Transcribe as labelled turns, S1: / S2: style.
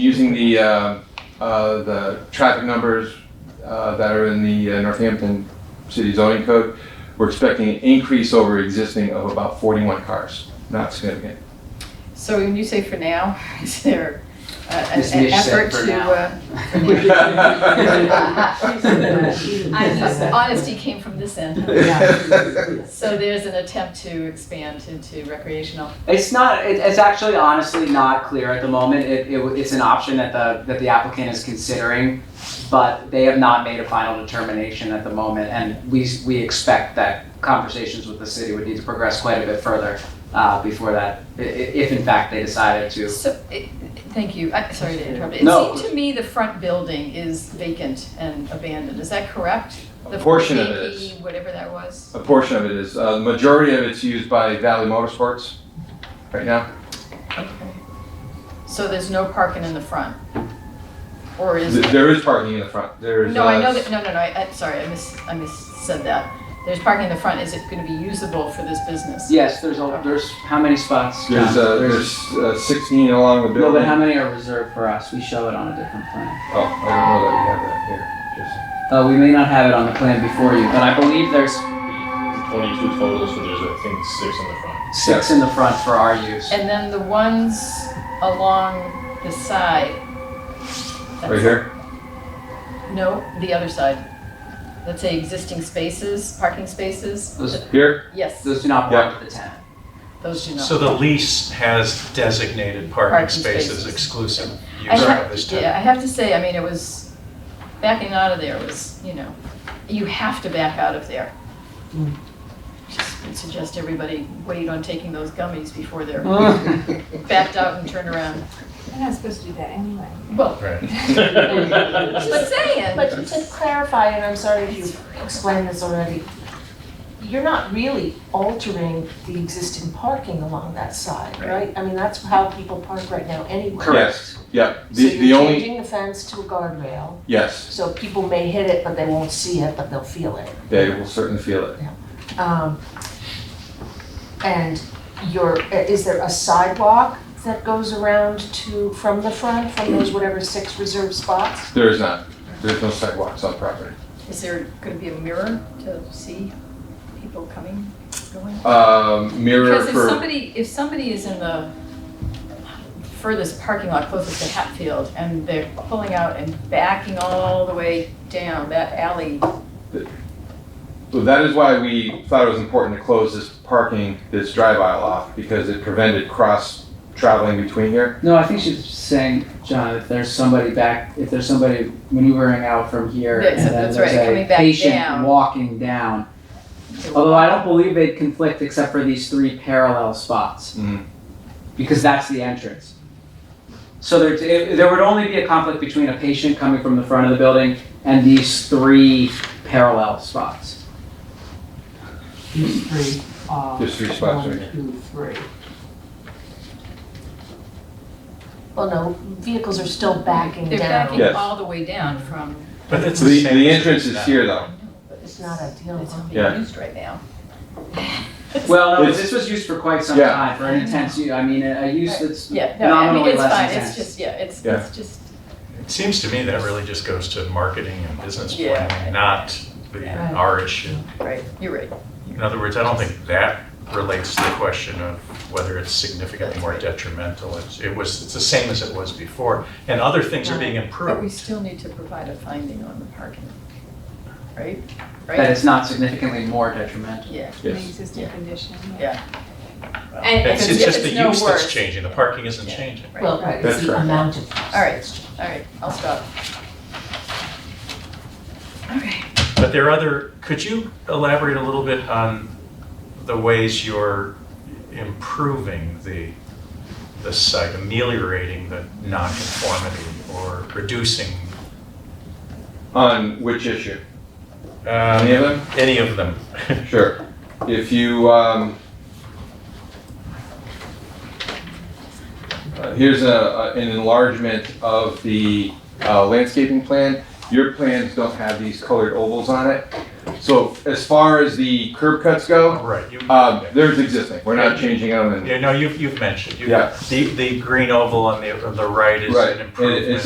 S1: using the, uh, uh, the traffic numbers uh, that are in the uh, Northampton City zoning code, we're expecting an increase over existing of about 41 cars, not significant.
S2: So when you say for now, is there a- a-
S3: Miss
S2: an
S3: Mish said
S2: effort
S3: for
S2: to?
S3: now.
S2: uh, I just- Honesty came from this end. So there's an attempt to expand into recreational.
S3: It's not, it, it's actually honestly not clear at the moment. It, it, it's an option that the, that the applicant is considering, but they have not made a final determination at the moment, and we, s- we expect that conversations with the city would need to progress quite a bit further, uh, before that, i- i- if in fact they decided to.
S2: So, it- thank you, I'm sorry to interrupt. It
S3: No.
S2: seemed to me the front building is vacant and abandoned, is that correct?
S1: A
S2: The
S1: portion of it
S2: 4KP,
S1: is,
S2: Whatever that was.
S1: a portion of it is, Uh, the majority of it's used by Valley Motorsports right now.
S2: So there's no parking in the front? Or is
S1: Th-
S2: there?
S1: There is parking in the front, there's.
S2: No, I
S1: uh,
S2: know that, no, no, no, I, I- sorry, I mis, I mis, said that. There's parking in the front, is it gonna be usable for this business?
S3: Yes, there's, a- there's, how many spots? John?
S1: There's, uh, there's uh, 16 along the
S4: No,
S1: building.
S4: but how many are reserved for us? We show it on a different plan.
S1: Oh, I don't know that we have that here, just.
S4: Uh, we may not have it on the plan before you, but I believe there's
S5: 22 total, so there's, I think, six in the front.
S3: Six in the front for our use.
S2: And then the ones along the side. that's-
S1: Right here?
S2: No, the other side. Let's say existing spaces, parking spaces.
S3: Those,
S1: Here?
S2: Yes,
S3: those do not belong to the tenant.
S2: those do not.
S6: So the lease has designated
S2: Parking
S6: parking
S2: spaces.
S6: spaces exclusive
S2: I
S6: use
S2: have,
S6: of this
S2: yeah,
S6: tenant.
S2: I have to say, I mean, it was, backing out of there was, you know, you have to back out of there.
S1: Hmm.
S2: Just would suggest everybody wait on taking those gummies before they're backed out and turned around.
S7: You're not supposed to do that anyway.
S2: Well,
S5: Right.
S2: but saying.
S8: But to clarify, and I'm sorry if you explained this already, you're not really altering the existing parking along that side, right? I mean, that's how people park right now anyway.
S3: Correct.
S1: Yeah,
S8: So
S1: the, the
S8: you're
S1: only,
S8: changing the fence to a guardrail,
S1: yes,
S8: so people may hit it, but they won't see it, but they'll feel it.
S1: they will certainly feel it.
S8: Um, And your, is there a sidewalk that goes around to, from the front, from those whatever six reserved spots?
S1: There is not, there's no sidewalks on property.
S2: Is there gonna be a mirror to see people coming, going?
S1: Um, mirror
S2: Because if
S1: for,
S2: somebody, if somebody is in the furthest parking lot closest to Hatfield and they're pulling out and backing all the way down that alley,
S1: so that is why we thought it was important to close this parking, this drive aisle off, because it prevented cross traveling between here.
S4: no. I think she's saying, John, if there's somebody back, if there's somebody maneuvering out from here,
S2: That's-
S4: and then
S2: that's right,
S4: there's
S2: coming
S4: a
S2: back
S4: patient
S2: down.
S4: walking down.
S2: it will-
S4: Although I don't believe they'd conflict except for these three parallel spots
S1: Mm.
S4: because that's the entrance.
S3: So there, it- there would only be a conflict between a patient coming from the front of the building and these three parallel spots.
S9: These three are.
S1: There's three spots right
S9: One,
S1: here.
S9: two, three.
S8: Well, no, vehicles are still backing
S2: they're
S8: down.
S2: backing
S1: Yes.
S2: all the way down from,
S6: But it's
S1: The,
S6: the same.
S1: the
S6: as
S1: entrance
S6: it's
S1: is
S6: now.
S1: here though.
S8: It's not ideal.
S2: it's not
S1: Yeah.
S2: being used right now.
S4: Well, no,
S1: It's-
S4: this was used for quite some
S1: Yeah.
S4: time for an intense use. I mean, a, a use that's
S2: Yeah, no, I mean,
S4: Nominally
S2: it's
S4: less
S2: fine, it's
S4: intense.
S2: just, yeah, it's,
S1: Yeah.
S2: it's just,
S6: It seems to me that really just goes to marketing and business
S2: Yeah.
S6: planning, not the,
S2: Right.
S6: our issue.
S2: right, you're right.
S6: In other words, I don't think that relates to the question of whether it's significantly more detrimental. It's- It was, it's the same as it was before, and other things are being
S2: But we
S6: improved.
S2: still need to provide a finding on the parking, right?
S4: that
S2: Right?
S4: it's not significantly more detrimental.
S2: Yeah.
S7: The
S1: Yes.
S7: existing
S2: Yeah.
S7: condition.
S2: And
S6: It's
S2: if
S6: it's just the
S2: it's no
S6: use that's
S2: worse,
S6: changing, the parking isn't
S2: Yeah.
S6: changing.
S2: Right.
S8: Well, right,
S1: That's
S8: it's the
S1: correct.
S8: amount of.
S2: All right, all right, I'll stop. Okay.
S6: But there are other, could you elaborate a little bit on the ways you're improving the, the site, ameliorating the nonconformity or reducing
S1: On which issue? Any of
S6: um,
S1: them?
S6: any of them?
S1: Sure. If you, um, uh, here's a, a- an enlargement of the uh, landscaping plan. Your plans don't have these colored ovals on it. So as far as the curb cuts go,
S6: Right, you,
S1: um, there's existing, we're not changing them and
S6: yeah, no, you've, you've mentioned, you,
S1: Yeah.
S6: the, the green oval on the, on the right is
S1: Right, and
S6: an
S1: it's
S6: improvement.